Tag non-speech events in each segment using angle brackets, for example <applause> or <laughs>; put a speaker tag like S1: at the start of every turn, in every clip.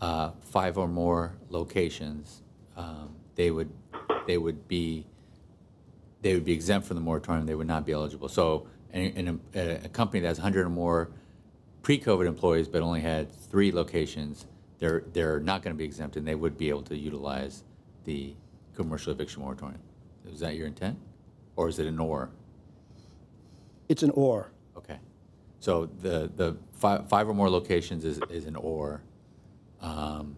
S1: uh, five or more locations, um, they would, they would be, they would be exempt from the moratorium, they would not be eligible. So an- an- a a company that has 100 or more pre-COVID employees but only had three locations, they're, they're not going to be exempt, and they would be able to utilize the commercial eviction moratorium. Is that your intent? Or is it an or?
S2: It's an or.
S1: Okay. So the, the five, five or more locations is, is an or, um,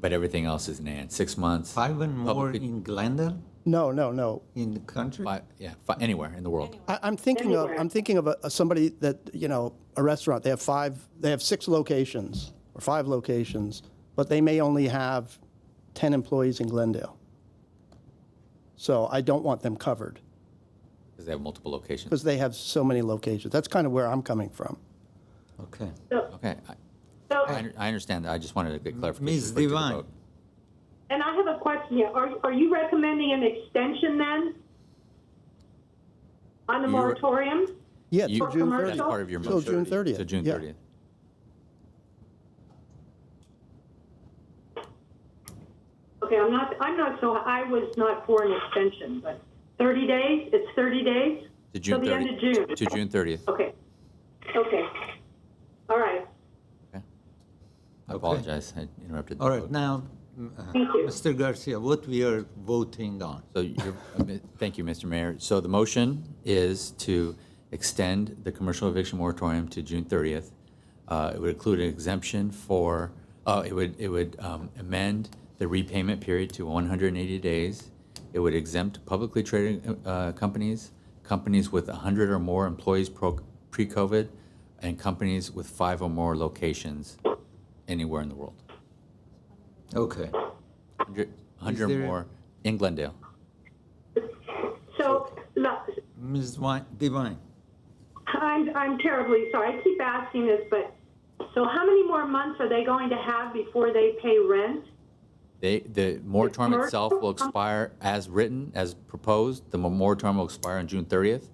S1: but everything else is an and. Six months,
S3: Five and more
S1: Public-
S3: in Glendale,
S2: No, no, no.
S3: in the country?
S1: five, yeah, fi- anywhere in the world.
S2: I, I'm thinking of, I'm thinking of a, somebody that, you know, a restaurant, they have five, they have six locations or five locations, but they may only have 10 employees in Glendale. So I don't want them covered
S1: Because they have multiple locations.
S2: because they have so many locations. That's kind of where I'm coming from.
S3: Okay.
S4: So,
S1: Okay, I-
S4: so,
S1: I, under- I understand that, I just wanted to get clarification.
S3: Ms.
S1: before I took a
S3: Devine.
S1: vote.
S4: and I have a question here. Are, are you recommending an extension then? On the
S1: You-
S4: moratorium?
S2: Yeah,
S1: You-
S2: till June
S4: commercial?
S1: That's
S2: 30th.
S1: part of your
S2: Till
S1: motion.
S2: June 30th.
S1: Till June
S2: yeah.
S1: 30th.
S4: Okay, I'm not, I'm not so, I was not for an extension, but 30 days, it's 30 days?
S1: To June 30th.
S4: Till the end of June?
S1: To June 30th.
S4: Okay, okay. All right,
S1: Okay. I apologize, I interrupted. the
S3: All right,
S1: vote.
S3: now, m- uh,
S4: thank you.
S3: Mr. Garcia, what we are voting on?
S1: So you're, uh, mi- thank you, Mr. Mayor. So the motion is to extend the commercial eviction moratorium to June 30th. Uh, It would include an exemption for, uh, it would, it would um, amend the repayment period to 180 days. It would exempt publicly traded uh, companies, companies with 100 or more employees pro- pre-COVID, and companies with five or more locations anywhere in the world.
S3: Okay,
S1: 100 100 or
S3: there-
S1: more in Glendale. Uh-huh.
S4: So, lo-
S3: Ms. Wi- Devine,
S4: I'm, I'm terribly sorry, I keep asking this, but, so how many more months are they going to have before they pay rent?
S1: They, the moratorium
S4: Mark?
S1: itself will expire as written, as proposed. The mo- moratorium will expire on June 30th.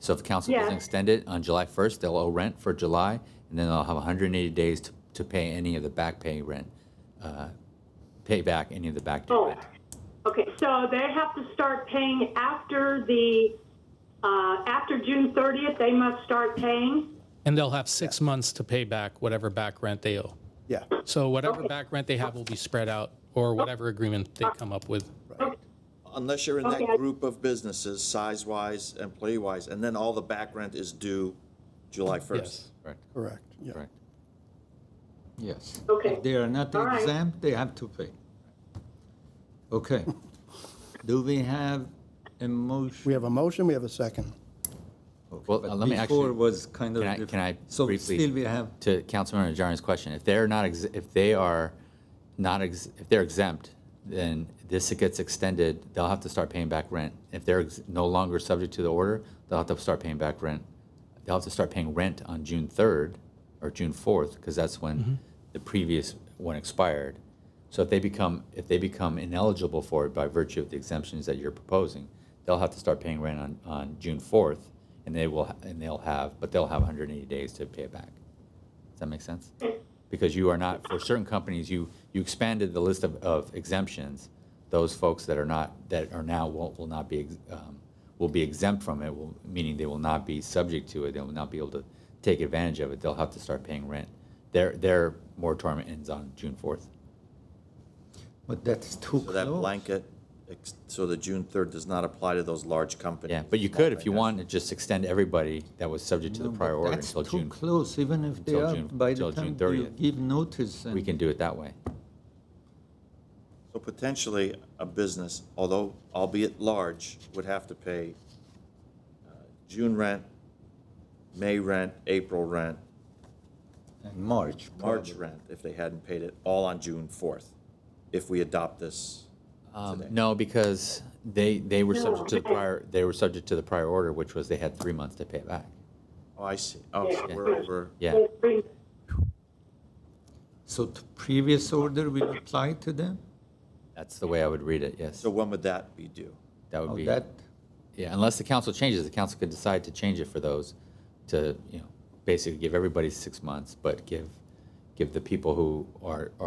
S1: So if council doesn't
S4: Yes.
S1: extend it on July 1st, they'll owe rent for July, and then they'll have 180 days to, to pay any of the back pay rent, uh, pay back any of the back due
S4: Oh,
S1: rent.
S4: okay, so they have to start paying after the, uh, after June 30th, they must start paying?
S5: And they'll have six months to pay back whatever back rent they owe.
S2: Yeah.
S5: So whatever back rent they have will be spread out or whatever agreement they come up with.
S6: Unless you're in that
S4: Okay.
S6: group of businesses, size-wise, employee-wise, and then all the back rent is due July 1st.
S5: Yes.
S1: Correct,
S2: Correct. Yeah.
S1: correct.
S3: yes.
S4: Okay.
S3: If they are not
S4: All right.
S3: exempt, they have to pay.
S1: <laughs>
S3: Okay. Do we have a motion?
S2: We have a motion, we have a second.
S3: Okay,
S1: Well,
S3: but
S1: uh, let me
S3: Before
S1: actually-
S3: was kind of.
S1: Can I,
S3: diff-
S1: can I
S3: So
S1: briefly?
S3: still we have,
S1: To Councilmember Najarian's question, if they're not, ex- if they are not, ex- if they're exempt, then this gets extended, they'll have to start paying back rent. If they're ex- no longer subject to the order, they'll have to start paying back rent. They'll have to start paying rent on June 3rd or June 4th, because that's when the previous one expired. So if they become, if they become ineligible for it by virtue of the exemptions that you're proposing, they'll have to start paying rent on, on June 4th, and they will, and they'll have, but they'll have 180 days to pay it back. Does that make sense? Because you are not, for certain companies, you, you expanded the list of, of exemptions. Those folks that are not, that are now, will, will not be, ex- um, will be exempt from it, will, meaning they will not be subject to it, they will not be able to take advantage of it, they'll have to start paying rent. Their, their moratorium ends on June fourth.
S3: but that's too
S6: So that
S3: close.
S6: blanket, ex- so the June 3rd does not apply to those large companies.
S1: Yeah, but you could, if you want, to just extend everybody that was subject to the
S3: But
S1: prior order
S3: That's
S1: until
S3: too
S1: June.
S3: close, even if they
S1: until
S3: are,
S1: June-
S3: by
S1: till
S3: the
S1: June
S3: time you
S1: 30th.
S3: give notice.
S1: We
S3: and-
S1: can do it that way.
S6: So potentially, a business, although albeit large, would have to pay uh, June rent, May rent, April rent,
S3: and March.
S6: March rent, if they hadn't paid it, all on June 4th, if we adopt this
S1: Um,
S6: today.
S1: No, because they, they were subject to the
S4: No.
S1: prior, they were subject to the prior order, which was they had three months to pay it back.
S6: Oh, I see. Oh, so
S4: Yeah.
S6: we're over.
S1: Yeah,
S3: So the previous order will apply to them?
S1: that's the way I would read it, yes.
S6: So when would that be due?
S1: That would
S3: Oh,
S1: be,
S3: That,
S1: yeah, unless the council changes, the council could decide to change it for those to, you know, basically give everybody six months, but give, give the people who are,